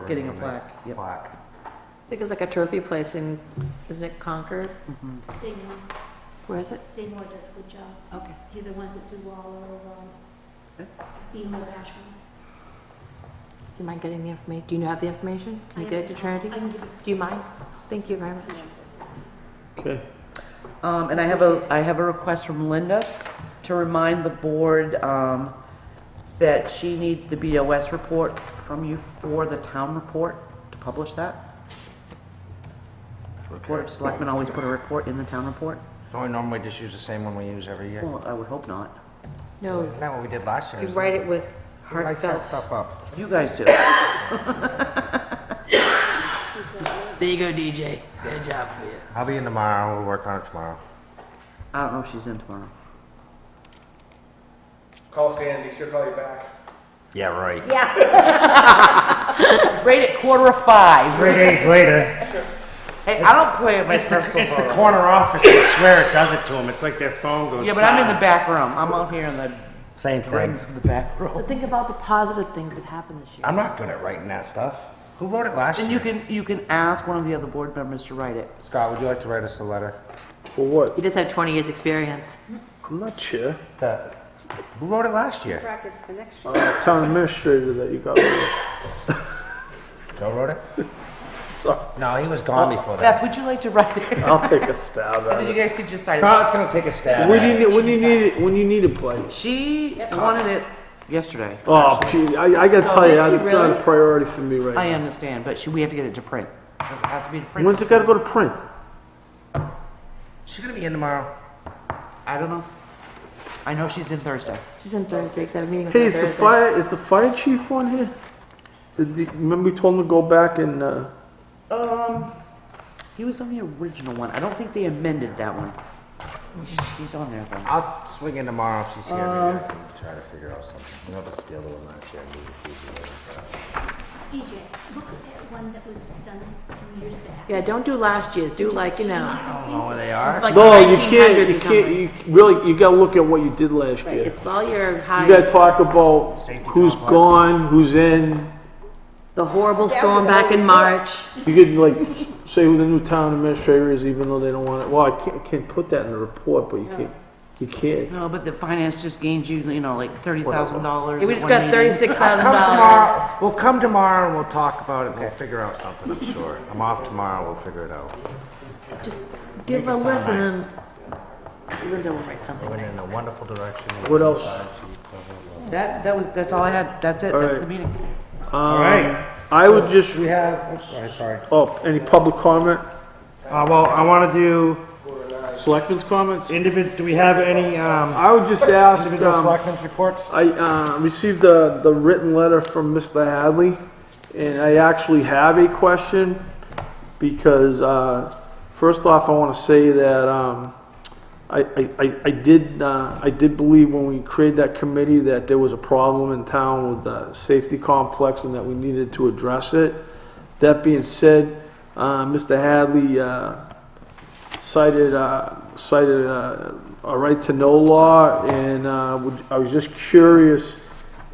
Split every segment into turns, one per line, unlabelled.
Getting a
nice
plaque, yep.
Plaque.
I think it's like a trophy place in, isn't it Concord?
Seymour,
Where is it?
Seymour does a good job.
Okay.
They're the ones that do all of, um, emo ashrams.
Do you mind getting the information? Do you have the information? Can you get it to Trinity?
I can give it.
Do you mind? Thank you very much.
Okay.
Um, and I have a, I have a request from Linda to remind the board, um, that she needs the BOS report from you for the town report to publish that. Board of Selectmen always put a report in the town report.
Don't we normally just use the same one we use every year?
Well, I would hope not.
No,
Isn't that what we did last year?
you
Is
write it with
that- Write that
heartfelt.
stuff up.
You guys do.
There you go, DJ. Good job for you.
I'll be in tomorrow, we'll work on it tomorrow.
I don't know if she's in tomorrow.
Call Sandy, she'll call you back.
Yeah, right.
Right at quarter of five.
Three days later,
Hey, I don't play with my
it's the,
personal
it's the
phone.
corner office. I swear it does it to them. It's like their phone goes.
Yeah, but I'm in the
silent.
back room. I'm out here in the
Same thing.
rings of the back
So
room.
think about the positive things that happened this year.
I'm not good at writing that stuff. Who wrote it last
And you
year?
can, you can ask one of the other board members to write it.
Scott, would you like to write us a letter?
For what?
You just have 20 years' experience.
I'm not sure.
That- Who wrote it last year?
practice for next year.
Uh, town administrator that you got. rid of.
Joe wrote it?
So
No, he was gone before that.
Beth, would you like to write it?
I'll take a stab at
And you
it.
guys could just sign it.
Scott's gonna take a stab
When
at
you
it.
need, when you need it, when you need it, play.
She wanted it yesterday.
Oh, gee, I, I gotta tell you,
did you
it's not
really?
a priority for me right
I
now.
understand, but she, we have to get it to print. 'Cause it has to be to print.
When's it gotta go to print?
She's gonna be in tomorrow.
I don't know. I know she's in Thursday.
She's in Thursday, because I have a meeting with
Hey,
her
is the
Thursday.
fire is the fire chief on here? Did the, remember we told him to go back and uh,
Um, he was on the original one. I don't think they amended that one. He's on there though.
I'll swing in tomorrow if she's here. Maybe I can try to figure out something. You know, the steel one last year.
DJ, look at one that was done some years back.
Yeah, don't do last year's. Do like, you know,
I don't know where they are.
like
no, you
1900
can't, you
or
can't,
something.
you really, you gotta look at what you did last year.
It's all your
You gotta
highs.
talk about
Safety
who's
complex.
gone, who's in.
The horrible storm back in March.
You could like say who the new town administrator is, even though they don't want it. Well, I can't, can't put that in the report, but you can't, you can't.
No, but the finance just gained you, you know, like thirty thousand dollars.
We just got
Come
$36,000.
tomorrow. We'll come tomorrow and we'll talk about it. We'll figure out something, I'm sure. I'm off tomorrow. We'll figure it out.
Just give a listen and Linda will write something
Went
nice.
in a wonderful direction.
What else?
That, that was, that's all I had. That's it. That's
Alright.
the meeting.
All
I
right. Um, I would just,
We have, I'm sorry, sorry.
oh, any public comment?
Uh, well, I want to do
Selectmen's comments?
individ. Do we have any? Um,
I would just ask,
Individual
um,
selectmen's reports?
I uh, received the, the written letter from Mr. Hadley, and I actually have a question, because, uh, first off, I want to say that um, I, I- I, I did, uh, I did believe when we created that committee that there was a problem in town with the safety complex and that we needed to address it. That being said, uh, Mr. Hadley uh, cited, uh, cited uh, a right to know law, and uh, would- I was just curious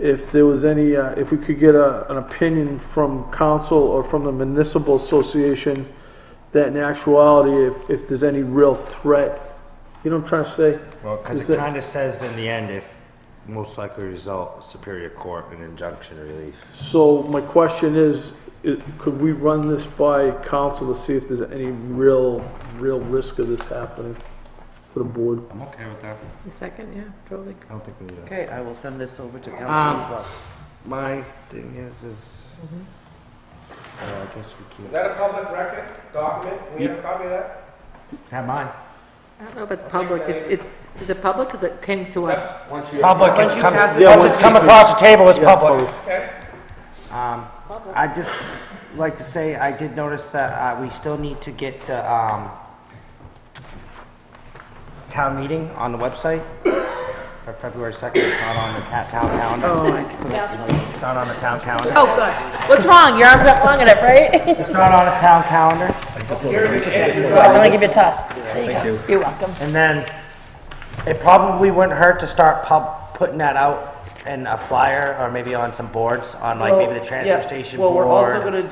if there was any, uh, if we could get a, an opinion from council or from the municipal association that in actuality, if, if there's any real threat, you know what I'm trying to say?
Well,
Is
because it
that-
kind of says in the end, if most likely result, Superior Court and injunction relief.
So my question is, i- could we run this by council to see if there's any real, real risk of this happening for the board?
I'm okay with that.
A second, yeah, probably.
I don't think we need
Okay, I will send this over to council
Um,
as well.
My thing is, is. Uh, I guess we can't.
Is that a public record document? We have a copy of that?
Have mine.
I don't know if it's public. It's, it, is it public? Because it came to us.
That's once you.
Public,
Once
it's
you
come,
pass it-
once it's come across the table, it's
Yeah,
public.
Okay.
Um, I just like to say, I did notice that, uh, we still need to get the, um, town meeting on the website for February second, it's not on the ca- town calendar. It's Not on the town calendar.
Oh, gosh. What's wrong? Your arm's not long enough, right?
It's not on the town calendar.
I'm going to give you a toss. There you go. You're welcome.
And then it probably wouldn't hurt to start pub, putting that out in a flyer or maybe on some boards on like maybe the transfer station board.
Well, we're also gonna